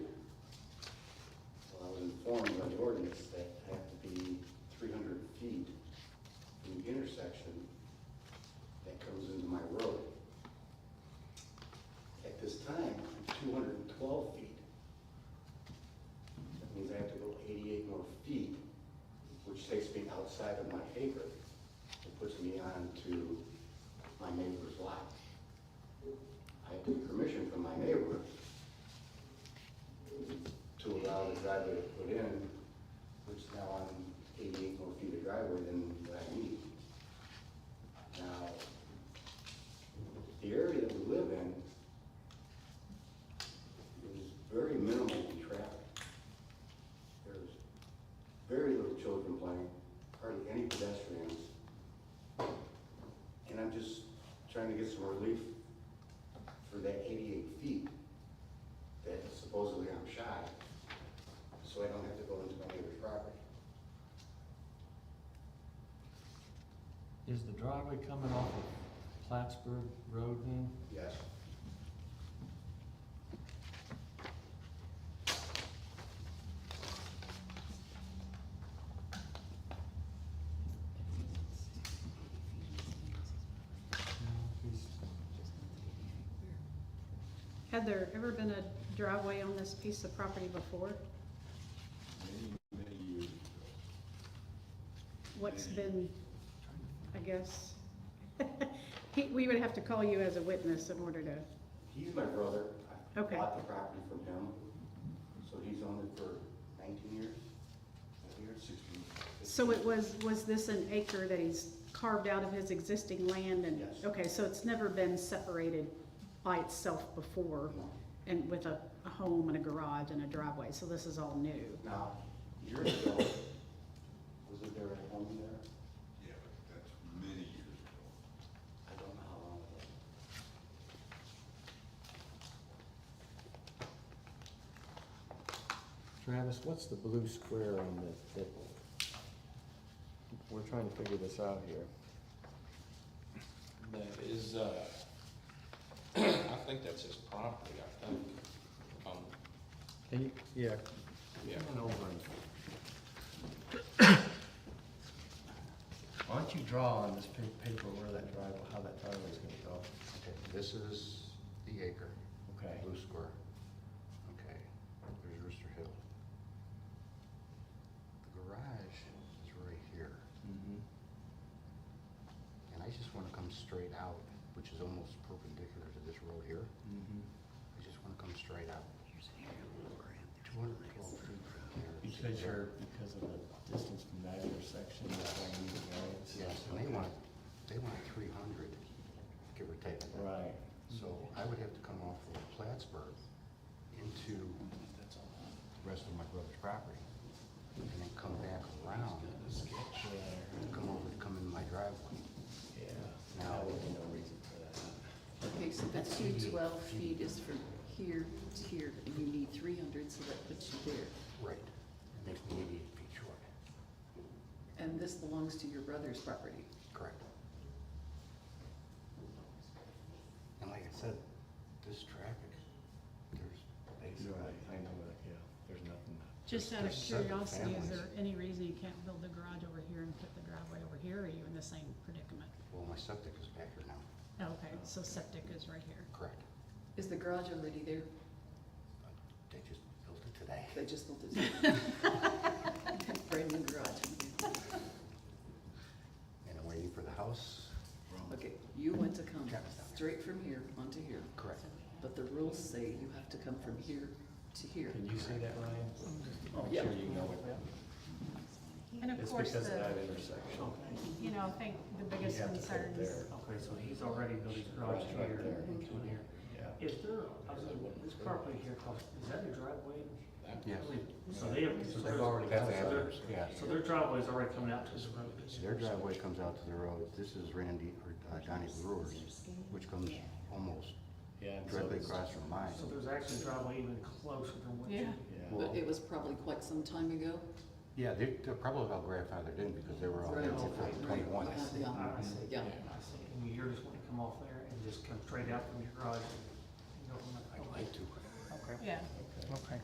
ordinance that have to be three hundred feet from the intersection that comes into my road. At this time, I'm two hundred and twelve feet. That means I have to go eighty-eight more feet, which takes me outside of my acre. It puts me onto my neighbor's lot. I had to get permission from my neighbor to allow the driveway to put in, which now I'm eighty-eight more feet of driveway than what I need. Now, the area that we live in is very minimally traffic. There's very little children playing, hardly any pedestrians. And I'm just trying to get some relief for that eighty-eight feet that supposedly I'm shy, so I don't have to go into my neighbor's property. Is the driveway coming off of Plattsburgh Road then? Yes. Had there ever been a driveway on this piece of property before? many, many years ago. What's been, I guess? He- We would have to call you as a witness in order to, He's my brother. I Okay. Bought the property from him, so he's owned it for nineteen years, nineteen years, sixteen. so it was, was this an acre that he's carved out of his existing land and? Yes. Okay, so it's never been separated by itself before and with a, a home and a garage and a driveway, so this is all new. Now, years ago, was it there a home there? Yeah, but that's many years ago. I don't know how long it was. Travis, what's the blue square on the, that, we're trying to figure this out here. That is, uh, I think that's his property, I think. Um, Can you, yeah, yeah, come on over and. Why don't you draw on this pa- paper where that driveway, how that driveway's gonna go? Okay, this is the acre, Okay, blue square. Okay, there's Rooster Hill. The garage is right here, Mm-hmm, and I just wanna come straight out, which is almost perpendicular to this road here. mm-hmm. I just wanna come straight out. Two hundred and twelve feet from there. to because there. you're, because of the distance from that intersection, that's why you need to go. It's- Yes, and they want, they want three hundred, give or take. Right, So I would have to come off of Plattsburgh into Mm-hmm. the rest of my brother's property, and then come back around, and come over, come in my driveway. yeah. Now, Okay, so that two twelve feet is from here to here, and you need three hundred, so that puts you there. right, it makes me eighty-eight feet short, And this belongs to your brother's property. correct? And like I said, this traffic, there's You're basically. right, I know that, yeah, there's nothing. Just out of There's seven curiosity, is families. there any reason you can't build the garage over here and put the driveway over here, or are you in the same predicament? Well, my septic is back here now, Okay, so septic is right here. correct? Is the garage already there? They just built it today. They just built it. Brand new garage. And I'm waiting for the house. Okay, you want to come Travis down there. straight from here onto here, Correct. but the rules say you have to come from here to here. Can you see that, Ryan? Oh, Make yeah. sure you know it. And of It's course, because of the, that intersection. you know, I think the biggest You have to put it concern is there. Okay, so he's already built his garage Right, right here there. and into here. Yeah. Is there, I mean, this property here, across- is that a driveway? that- Yes. So they have, So so they've already their, got That's that. Adams, yeah. so their driveway's already coming out to the road. Their driveway comes out to the road. This is Randy, or uh, Donnie Brewer's, which comes almost Yeah. and so directly it's- across from mine. So there's actually a driveway even closer than what you. Yeah. Yeah. But it was probably quite some time ago. Yeah, they- they're probably all grandfathered in because they were all Right. built before twenty-one. Yeah, I see. Yeah. I see. And you're just wanting to come off there and just come straight out from your garage and go from there. I'd like to. uh, Okay. yeah. Okay.